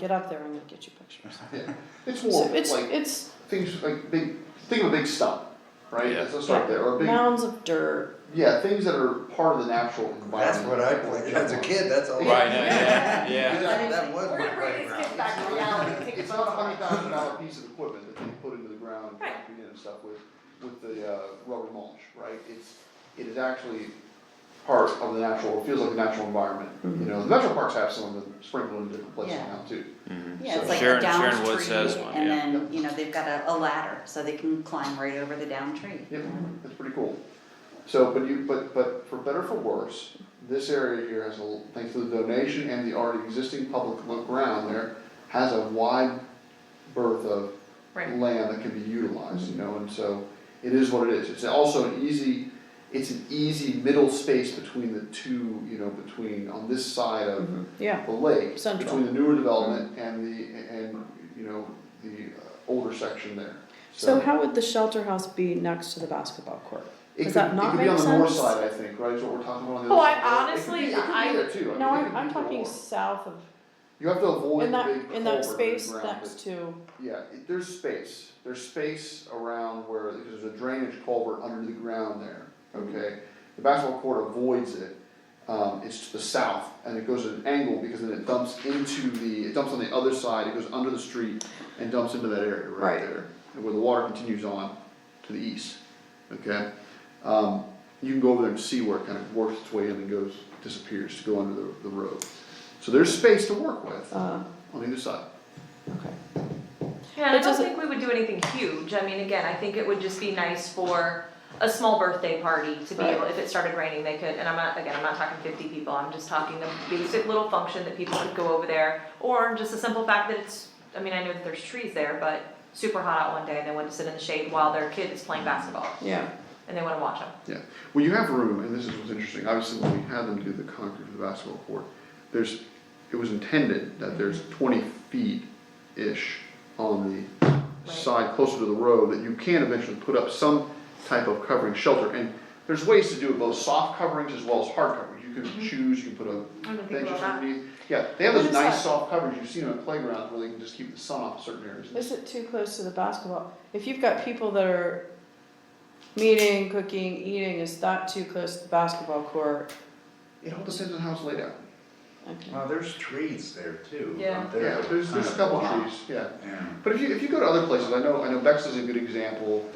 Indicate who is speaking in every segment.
Speaker 1: get up there and you'll get your pictures.
Speaker 2: Yeah, it's
Speaker 1: So
Speaker 2: more
Speaker 1: it's,
Speaker 2: like
Speaker 1: it's,
Speaker 2: things like big. Think of a big stump, right?
Speaker 3: Yeah.
Speaker 2: Let's start there. Or a big,
Speaker 1: mounds of dirt,
Speaker 2: yeah, things that are part of the natural environment.
Speaker 4: That's what I played as a kid, that's all.
Speaker 3: Right,
Speaker 2: Right,
Speaker 3: now, yeah,
Speaker 5: yeah,
Speaker 3: yeah.
Speaker 4: That that was
Speaker 5: We're
Speaker 4: my
Speaker 5: gonna bring these kids
Speaker 4: playground.
Speaker 5: back to reality, take
Speaker 2: It's
Speaker 5: a
Speaker 2: not a
Speaker 5: photo.
Speaker 2: hundred thousand dollar piece of equipment that they put into the ground and
Speaker 5: Right.
Speaker 2: concrete in and stuff with, with the, uh, rubber mulch, right? It's, it is actually part of the natural, it feels like a natural environment, you know, the natural parks have some of them sprinkled in different places
Speaker 6: Yeah.
Speaker 2: now too.
Speaker 6: Yeah,
Speaker 2: So
Speaker 6: it's
Speaker 3: Mm-hmm.
Speaker 6: like
Speaker 3: Sharon-
Speaker 6: a down
Speaker 3: Sharon Woods
Speaker 6: tree,
Speaker 3: has one,
Speaker 6: and
Speaker 3: yeah.
Speaker 6: then you know they've got a, a ladder so they can climb right over the down tree.
Speaker 2: Yep, that's pretty cool. So, but you, but, but for better or for worse, this area here has a, l- thanks to the donation and the already existing public lo- ground there, has a wide berth of
Speaker 5: Right.
Speaker 2: land that can be utilized, you know, and so it is what it is. It's also an easy, it's an easy middle space between the two, you know, between, on this side of
Speaker 1: yeah,
Speaker 2: the lake,
Speaker 1: Mm-hmm. Central. Mm-hmm.
Speaker 2: between the newer development and the, and, you know, the uh, older section there.
Speaker 1: so how would the shelter house be next to the basketball court?
Speaker 2: It
Speaker 1: Does
Speaker 2: could,
Speaker 1: that
Speaker 2: it
Speaker 1: not
Speaker 2: could be
Speaker 1: make
Speaker 2: on the north
Speaker 1: sense?
Speaker 2: side, I think, right, is what we're talking about on the
Speaker 5: Oh,
Speaker 2: other side.
Speaker 5: I
Speaker 2: It could be-
Speaker 5: honestly-
Speaker 2: it could be
Speaker 5: I-
Speaker 2: there too. I mean,
Speaker 1: No,
Speaker 2: it
Speaker 1: I'm,
Speaker 2: could
Speaker 1: I'm
Speaker 2: be
Speaker 1: talking
Speaker 2: more.
Speaker 1: south of,
Speaker 2: You have to avoid
Speaker 1: in
Speaker 2: the
Speaker 1: that,
Speaker 2: big
Speaker 1: in that
Speaker 2: culvert in the
Speaker 1: space
Speaker 2: ground, but-
Speaker 1: next to,
Speaker 2: Yeah, it- there's space, there's space around where, because there's a drainage culvert under the ground there, okay? The basketball court avoids it, um, it's to the south, and it goes at an angle, because then it dumps into the, it dumps on the other side, it goes under the street and dumps into that area right
Speaker 1: Right.
Speaker 2: there. and Where the water continues on to the east, okay? Um, you can go over there and see where it kind of works its way in and goes, disappears to go under the, the road. So there's space to work with
Speaker 1: uh,
Speaker 2: on either side.
Speaker 1: okay.
Speaker 5: Yeah, I
Speaker 1: It
Speaker 5: don't
Speaker 1: doesn't-
Speaker 5: think we would do anything huge, I mean, again, I think it would just be nice for a small birthday party to be
Speaker 1: Right.
Speaker 5: able, if it started raining, they could, and I'm not, again, I'm not talking fifty people, I'm just talking the basic little function that people could go over there. Or just the simple fact that it's, I mean, I know that there's trees there, but super hot out one day and they want to sit in the shade while their kid is playing basketball
Speaker 1: Yeah,
Speaker 5: and they wanna watch them.
Speaker 2: Yeah, well, you have room, and this is what's interesting, obviously, when we had them do the concrete for the basketball court, there's, it was intended that there's twenty feet-ish on the
Speaker 5: Right.
Speaker 2: side closer to the road, that you can eventually put up some type of covering shelter, and there's ways to do it, both soft coverings as well as hard coverings, you can choose, Mm-hmm. you can put
Speaker 5: I
Speaker 2: a
Speaker 5: don't think
Speaker 2: benches
Speaker 5: we'll have-
Speaker 2: underneath. Yeah, they have
Speaker 1: What
Speaker 2: those
Speaker 1: is
Speaker 2: nice
Speaker 1: that?
Speaker 2: soft coverings, you've seen them at playgrounds where they can just keep the sun off certain areas.
Speaker 1: uh, is it too close to the basketball? If you've got people that are meeting, cooking, eating, is that too close to the basketball court?
Speaker 2: It all depends on how it's laid out,
Speaker 1: Okay.
Speaker 4: Well, there's trees there too.
Speaker 5: Yeah.
Speaker 4: up there
Speaker 2: yeah, there's, there's a
Speaker 4: kind of
Speaker 2: couple
Speaker 4: block.
Speaker 2: trees, yeah.
Speaker 4: Yeah.
Speaker 2: But if you, if you go to other places, I know, I know Bexley's a good example,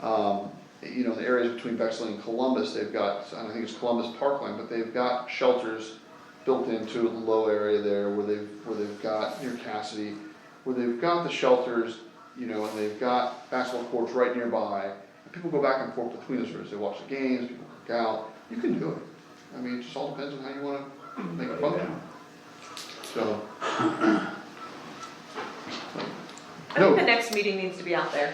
Speaker 2: um, you know, the areas between Bexley and Columbus, they've got, I think it's Columbus Parkland, but they've got shelters built into a low area there where they've, where they've got, near Cassidy, where they've got the shelters, you know, and they've got basketball courts right nearby. And People go back and forth between those areas, they watch the games, people cook out, you can do it. I mean, it just all depends on how you wanna make it fun, so.
Speaker 5: I
Speaker 2: No.
Speaker 5: think the next meeting needs to be out there.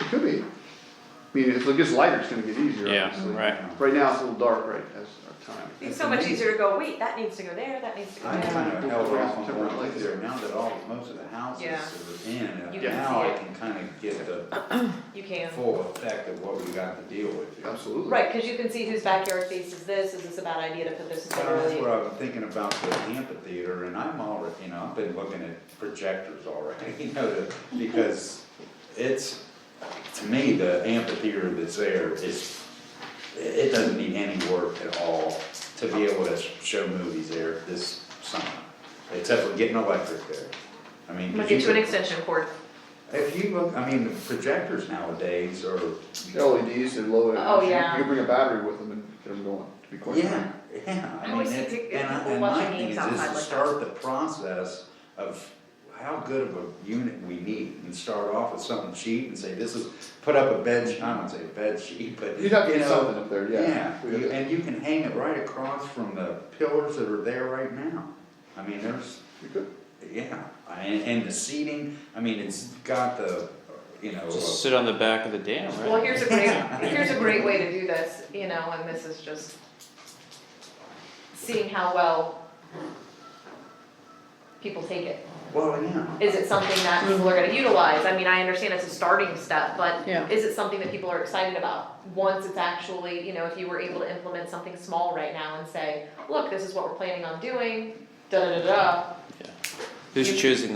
Speaker 2: It could be. I mean, if it gets lighter, it's gonna get easier,
Speaker 3: Yeah,
Speaker 2: obviously.
Speaker 3: right.
Speaker 2: Right now, it's a little dark, right, as our time.
Speaker 5: It's so much easier to go, wait, that needs to go there, that needs to go
Speaker 4: I
Speaker 5: there.
Speaker 4: kind of held off on going like there, now that all, most of the houses
Speaker 5: Yeah.
Speaker 4: are in,
Speaker 5: You
Speaker 4: and
Speaker 5: can
Speaker 4: now
Speaker 5: see
Speaker 4: I
Speaker 5: it.
Speaker 4: can kind of get the
Speaker 5: You can.
Speaker 4: full effect of what we got to deal with here.
Speaker 2: Absolutely.
Speaker 5: Right, cause you can see whose backyard faces this, is this a bad idea to put this in
Speaker 4: Well, That's
Speaker 5: really?
Speaker 4: what I was thinking about the amphitheater, and I'm already, you know, I've been looking at projectors already, you know, to- because it's, to me, the amphitheater that's there is, it doesn't need any work at all to be able to show movies there this summer, except for getting electric there. I mean,
Speaker 5: I'm gonna
Speaker 4: 'cause
Speaker 5: get you an
Speaker 4: could-
Speaker 5: extension cord.
Speaker 4: if you look, I mean, the projectors nowadays are,
Speaker 2: LEDs, they're low energy.
Speaker 5: Oh,
Speaker 2: You-
Speaker 5: yeah.
Speaker 2: You can bring a battery with them and get them going, to be quite frank.
Speaker 4: yeah, yeah,
Speaker 5: I
Speaker 4: I mean,
Speaker 5: always
Speaker 4: it's,
Speaker 5: think
Speaker 4: and I,
Speaker 5: people
Speaker 4: and
Speaker 5: watching
Speaker 4: my thing
Speaker 5: games
Speaker 4: is, is
Speaker 5: outside
Speaker 4: to
Speaker 5: like
Speaker 4: start the process of how good of a unit we need, and start off with something cheap and say, this is, put up a bed, I don't say a bed sheet, but, you
Speaker 2: You'd have to get
Speaker 4: know,
Speaker 2: something up there, yeah.
Speaker 4: yeah, you- and you can hang it right across from the pillars that are there right now. I mean, there's,
Speaker 2: You could.
Speaker 4: yeah, and, and the seating, I mean, it's got the, you know,
Speaker 3: Just sit on the back of the dam, right?
Speaker 5: Well, here's a great, here's a great way to do this, you know, and this is just seeing how well people take it.
Speaker 4: well, yeah.
Speaker 5: Is it something that people are gonna utilize? I mean, I understand it's a starting step, but
Speaker 1: Yeah.
Speaker 5: is it something that people are excited about? Once it's actually, you know, if you were able to implement something small right now and say, look, this is what we're planning on doing, da da da da.
Speaker 3: Who's choosing